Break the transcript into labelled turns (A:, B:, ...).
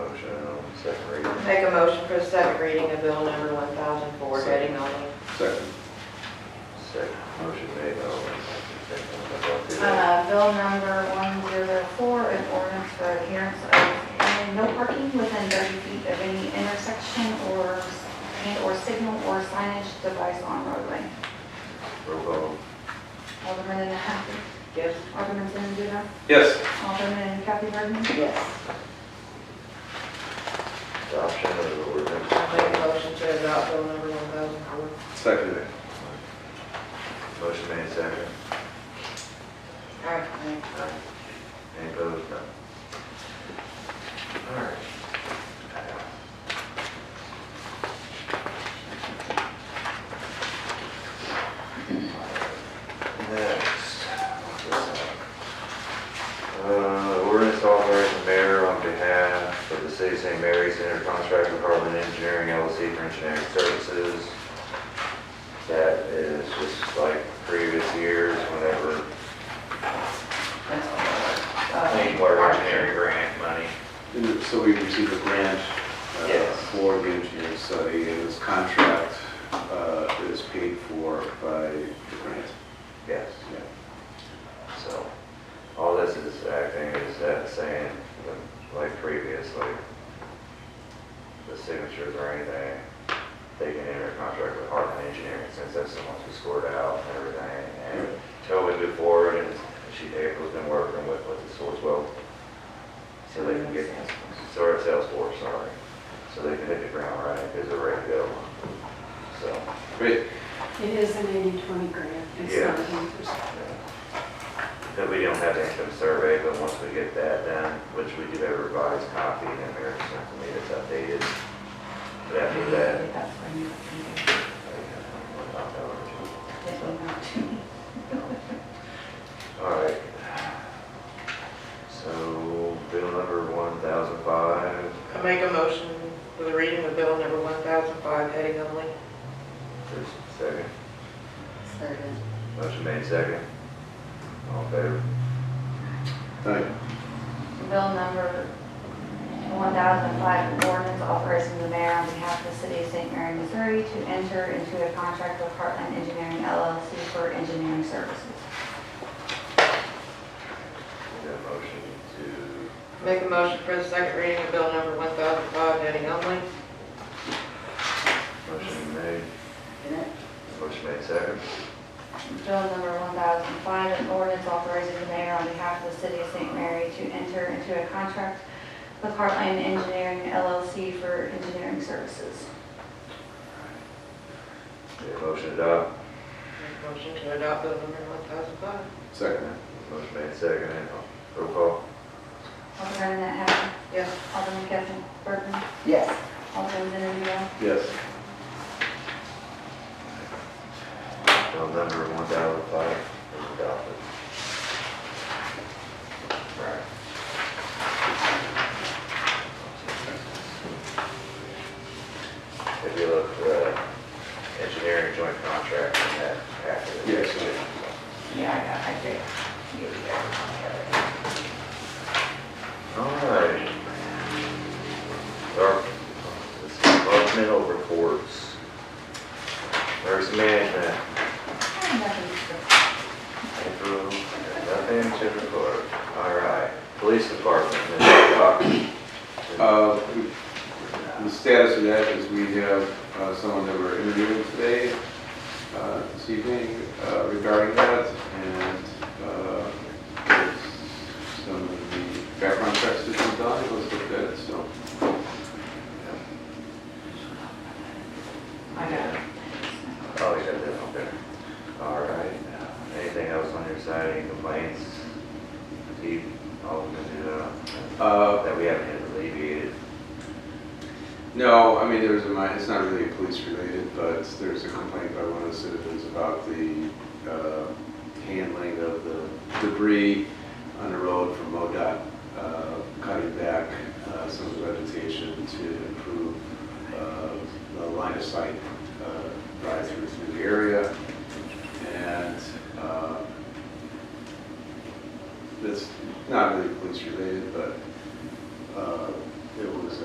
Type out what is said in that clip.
A: Make a motion for the second reading of bill number 1004, heading only.
B: Second.
C: Second, motion made, Alderman Hudson, second by Alderman Delgado.
B: Uh-huh.
D: Uh, Bill number 104, an ordinance for adherence of uh, no parking within 30 feet of any intersection or, and/or signal or signage device on roadway.
C: Roll call.
D: Alderman Happy,
A: Yes?
D: Alderman Zenen,
B: Yes.
D: Alderman Kathy Burman,
A: Yes.
C: Adoption of the ordinance.
A: I make a motion to adopt bill number 1004.
B: Second.
C: Motion made, second.
A: All right, thanks.
C: Any opposed? None. All right. Next. Uh, ordinance authorizing the mayor on behalf of the city of St. Mary's to enter contract with Harlan Engineering LLC for engineering services. That is just like previous years, whenever
A: That's
C: Clean
A: all.
C: water engineering grant money.
B: And So we received a grant uh,
C: Yes.
B: for the engineering study, and this contract uh, is paid for by the grant.
C: Yes.
B: Yeah.
C: So, all this is acting is that saying, like previously, the signatures or anything, they can enter a contract with Heartland Engineering since that's the ones who scored out and everything. And until we move forward, and she, April's been working with, with the Sourcewell, so they can get, sorry, Salesforce, sorry. So they can hit the ground running because they're ready to go. So,
B: Great.
E: It is an 80-20 grant, it's not
C: Yes.
E: an 80%.
C: That we don't have the income survey, but once we get that done, which we do have a revised copy, then Mayor sent to me that's updated. But after that.
D: That's where you get them out.
C: All right. So bill number one thousand five,
A: I make a motion for the reading of bill number 1005, heading only.
C: there's second,
D: Second.
C: motion made second. All in favor?
B: Thank
D: Bill number 1005, ordinance authorizing the mayor on behalf of the city of St. Mary, Missouri to enter into a contract with Heartland Engineering LLC for engineering services.
C: We got a motion to,
A: Make a motion for the second reading of bill number 1005, heading only.
C: motion made, motion made second.
D: Bill number 1005, an ordinance authorizing the mayor on behalf of the city of St. Mary to enter into a contract with Heartland Engineering LLC for engineering services.
C: We got a motion to adopt,
A: Make a motion to adopt bill number 1005.
B: Second.
C: motion made second, and roll call.
D: Alderman Happy,
A: Yes.
D: Alderman Kevin Burton,
A: Yes.
D: Alderman Zenobia,
B: Yes.
C: Bill number one thousand five is adopted. Right. If you look, uh, engineering joint contract and that after. the-
B: Yes, sir.
D: Yeah, I got, I did. Yeah, yeah.
C: All right. Our departmental reports. Emergency management,
D: I got these.
C: April, nothing to report. All right, police department, Mr. Cox.
B: Uh, The status of that is we have uh, someone that we're interviewing today, uh, this evening uh, regarding that, and uh, there's some of the background checks that have been done, it was looked at, so.
A: I got it.
C: Oh, you got that one there. All right. Anything else on your side, any complaints? Steve, all of them,
B: Uh,
C: uh, that we haven't yet alleviated?
B: No, I mean, there's a, mi- it's not really police related, but there's a complaint by one of the citizens about the uh, handling of the debris on the road from MoDOT, uh, cutting back uh, some of the vegetation to improve uh, the line of sight uh, drive through through the area. And uh, that's not really police related, but uh,